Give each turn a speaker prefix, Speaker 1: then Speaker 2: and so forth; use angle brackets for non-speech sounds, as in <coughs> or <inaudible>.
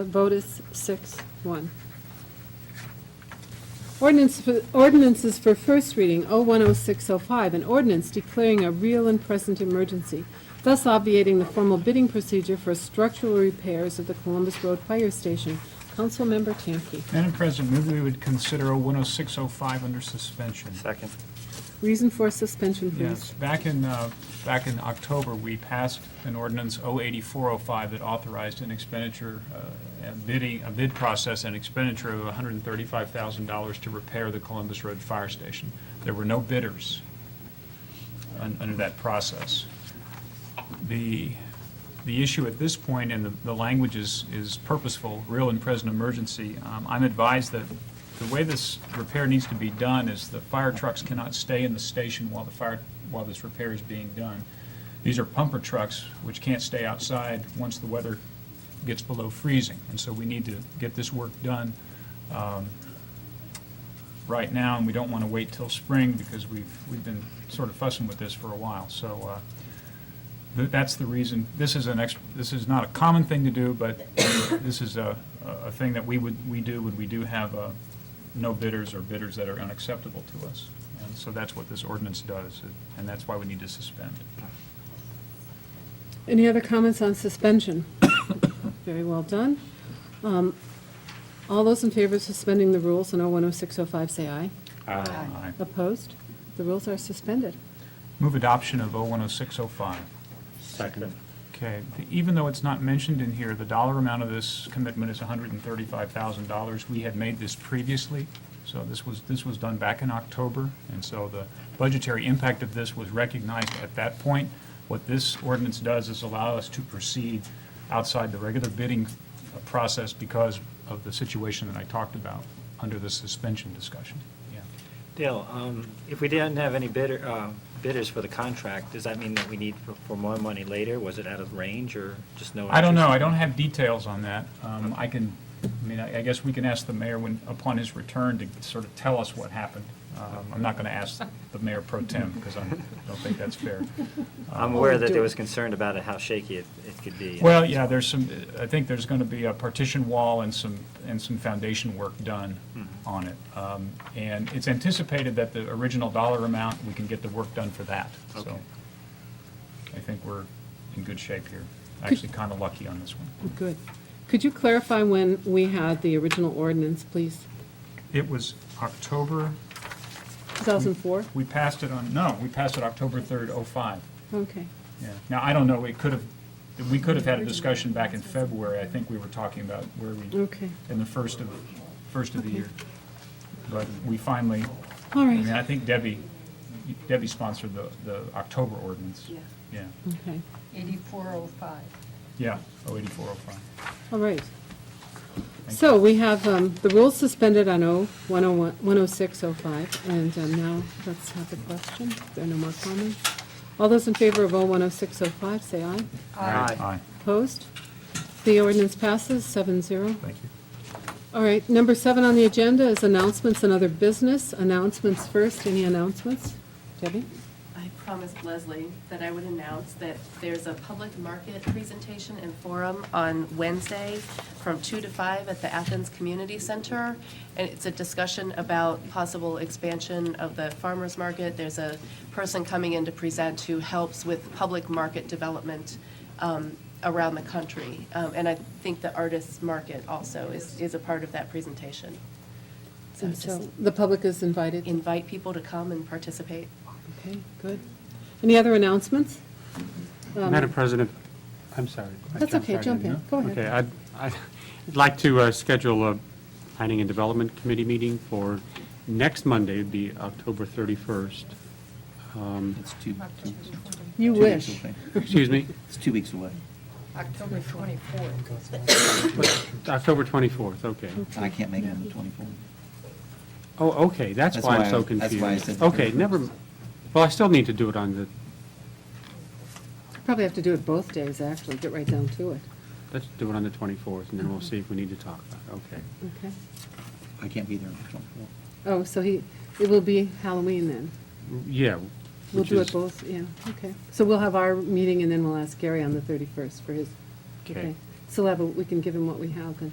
Speaker 1: The vote is six, one. Ordinance for- Ordinances for first reading, 010605, an ordinance declaring a real and present emergency, thus obviating the formal bidding procedure for structural repairs of the Columbus Road Fire Station. Councilmember Tamke.
Speaker 2: Madam President, move we would consider 10605 under suspension.
Speaker 3: Second.
Speaker 1: Reason for suspension, please.
Speaker 2: Yes, back in, uh, back in October, we passed an ordinance 08405 that authorized an expenditure, uh, a bidding, a bid process and expenditure of $135,000 to repair the Columbus Road Fire Station. There were no bidders un- under that process. The, the issue at this point, and the, the language is, is purposeful, real and present emergency, um, I'm advised that the way this repair needs to be done is the fire trucks cannot stay in the station while the fire, while this repair is being done. These are pumper trucks, which can't stay outside once the weather gets below freezing, and so we need to get this work done um, right now, and we don't want to wait till spring because we've, we've been sort of fussing with this for a while. So uh, th- that's the reason, this is an ex, this is not a common thing to do, but this is a, a thing that we would, we do when we do have uh, no bidders or bidders that are unacceptable to us. And so that's what this ordinance does, and that's why we need to suspend.
Speaker 1: Any other comments on suspension? <coughs> Very well done. Um, All those in favor of suspending the rules on 010605, say aye.
Speaker 2: Aye.
Speaker 1: Opposed? The rules are suspended.
Speaker 2: Move adoption of 010605.
Speaker 3: Second.
Speaker 2: Okay, the- even though it's not mentioned in here, the dollar amount of this commitment is $135,000. We had made this previously, so this was, this was done back in October, and so the budgetary impact of this was recognized at that point. What this ordinance does is allow us to proceed outside the regular bidding uh, process because of the situation that I talked about under the suspension discussion. Yeah.
Speaker 3: Dale, um, if we didn't have any bidder, uh, bidders for the contract, does that mean that we need for- for more money later? Was it out of range or just no?
Speaker 2: I don't know,
Speaker 3: interest?
Speaker 2: I don't have details on that. Um, I can, I mean, I I guess we can ask the mayor when, upon his return, to sort of tell us what happened. Um, I'm not going to ask the mayor pro tem, because I don't think that's fair.
Speaker 3: I'm aware that there was concern about it, how shaky it it could be.
Speaker 2: Well, yeah, there's some, I think there's going to be a partition wall and some, and some foundation work done on it. Um, And it's anticipated that the original dollar amount, we can get the work done for that. So
Speaker 3: Okay.
Speaker 2: I think we're in good shape here. Actually, kind of lucky on this one.
Speaker 1: Good. Could you clarify when we had the original ordinance, please?
Speaker 2: It was October
Speaker 1: 2004?
Speaker 2: We passed it on, no, we passed it October 3rd, '05.
Speaker 1: Okay.
Speaker 2: Yeah. Now, I don't know, it could have, we could have had a discussion back in February. I think we were talking about where we,
Speaker 1: Okay.
Speaker 2: in the first of, first of the year. But we finally,
Speaker 1: All
Speaker 2: I mean,
Speaker 1: right.
Speaker 2: I think Debbie, Debbie sponsored the, the October ordinance.
Speaker 4: Yeah.
Speaker 2: Yeah,
Speaker 1: Okay.
Speaker 4: 8405.
Speaker 2: yeah, 084, 05.
Speaker 1: All right.
Speaker 2: Thank
Speaker 1: So we have um, the rules suspended on oh, 0101 10605, and um, now let's have the question. There are no more comments. All those in favor of oh, 010605, say aye.
Speaker 3: Aye.
Speaker 2: Aye.
Speaker 1: Opposed? The ordinance passes 7-0.
Speaker 2: Thank you.
Speaker 1: All right, number seven on the agenda is announcements and other business. Announcements first, any announcements? Debbie?
Speaker 5: I promised Leslie that I would announce that there's a public market presentation and forum on Wednesday from two to five at the Athens Community Center. And it's a discussion about possible expansion of the farmer's market. There's a person coming in to present who helps with public market development um, around the country. Um, And I think the artist's market also is, is a part of that presentation. So
Speaker 1: And
Speaker 5: just
Speaker 1: so the public is invited?
Speaker 5: invite people to come and participate.
Speaker 1: Okay, good. Any other announcements? Um,
Speaker 6: Madam President, I'm sorry. I
Speaker 1: That's
Speaker 6: jumped
Speaker 1: okay,
Speaker 6: right
Speaker 1: jump in. Go ahead.
Speaker 6: Okay, I'd, I'd like to uh, schedule a Planning and Development Committee meeting for next Monday, it'd be October 31st. Um,
Speaker 7: It's two, two-
Speaker 1: You
Speaker 7: two weeks
Speaker 1: wish.
Speaker 7: away.
Speaker 6: Excuse me,
Speaker 7: It's two weeks away.
Speaker 4: October 24th.
Speaker 6: October 24th, okay.
Speaker 1: Hmm.
Speaker 7: And I can't make it on the 24th.
Speaker 6: Oh, okay, that's
Speaker 7: That's
Speaker 6: why
Speaker 7: why
Speaker 6: I'm so
Speaker 7: I- that's
Speaker 6: confused.
Speaker 7: why I said the
Speaker 6: Okay,
Speaker 7: 31st.
Speaker 6: never, m- well, I still need to do it on the,
Speaker 1: Probably have to do it both days, actually, get right down to it.
Speaker 6: let's do it on the 24th, and then we'll
Speaker 1: Mm-hmm.
Speaker 6: see if we need to talk about it, okay.
Speaker 1: Okay.
Speaker 7: I can't be there on the
Speaker 1: Oh, so he, it will be Halloween then?
Speaker 6: Yeah.
Speaker 1: We'll
Speaker 6: which
Speaker 1: do it
Speaker 6: is-
Speaker 1: both, yeah, okay. So we'll have our meeting and then we'll ask Gary on the 31st for his,
Speaker 6: Okay.
Speaker 1: okay. So we'll have a- we can give him what we have and